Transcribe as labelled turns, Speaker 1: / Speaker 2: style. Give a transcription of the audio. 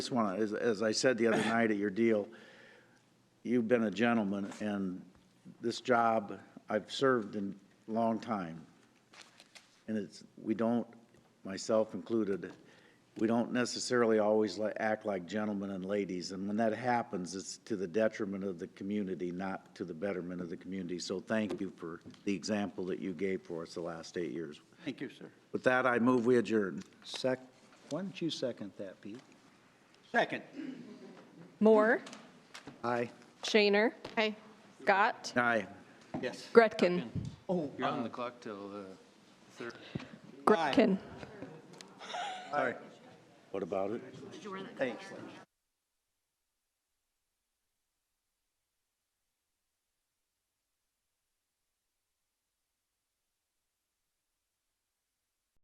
Speaker 1: Just want to, as, as I said the other night at your deal, you've been a gentleman, and this job, I've served in a long time. And it's, we don't, myself included, we don't necessarily always li- act like gentlemen and ladies. And when that happens, it's to the detriment of the community, not to the betterment of the community. So thank you for the example that you gave for us the last eight years.
Speaker 2: Thank you, sir.
Speaker 1: With that, I move we adjourn.
Speaker 3: Sec, why don't you second that, Pete?
Speaker 2: Second.
Speaker 4: Moore,
Speaker 3: Aye.
Speaker 4: Shaner. Scott,
Speaker 1: Aye.
Speaker 2: Yes.
Speaker 4: Gretkin.
Speaker 5: You're on the clock till the third.
Speaker 4: Gretkin.
Speaker 1: What about it?
Speaker 2: Thanks.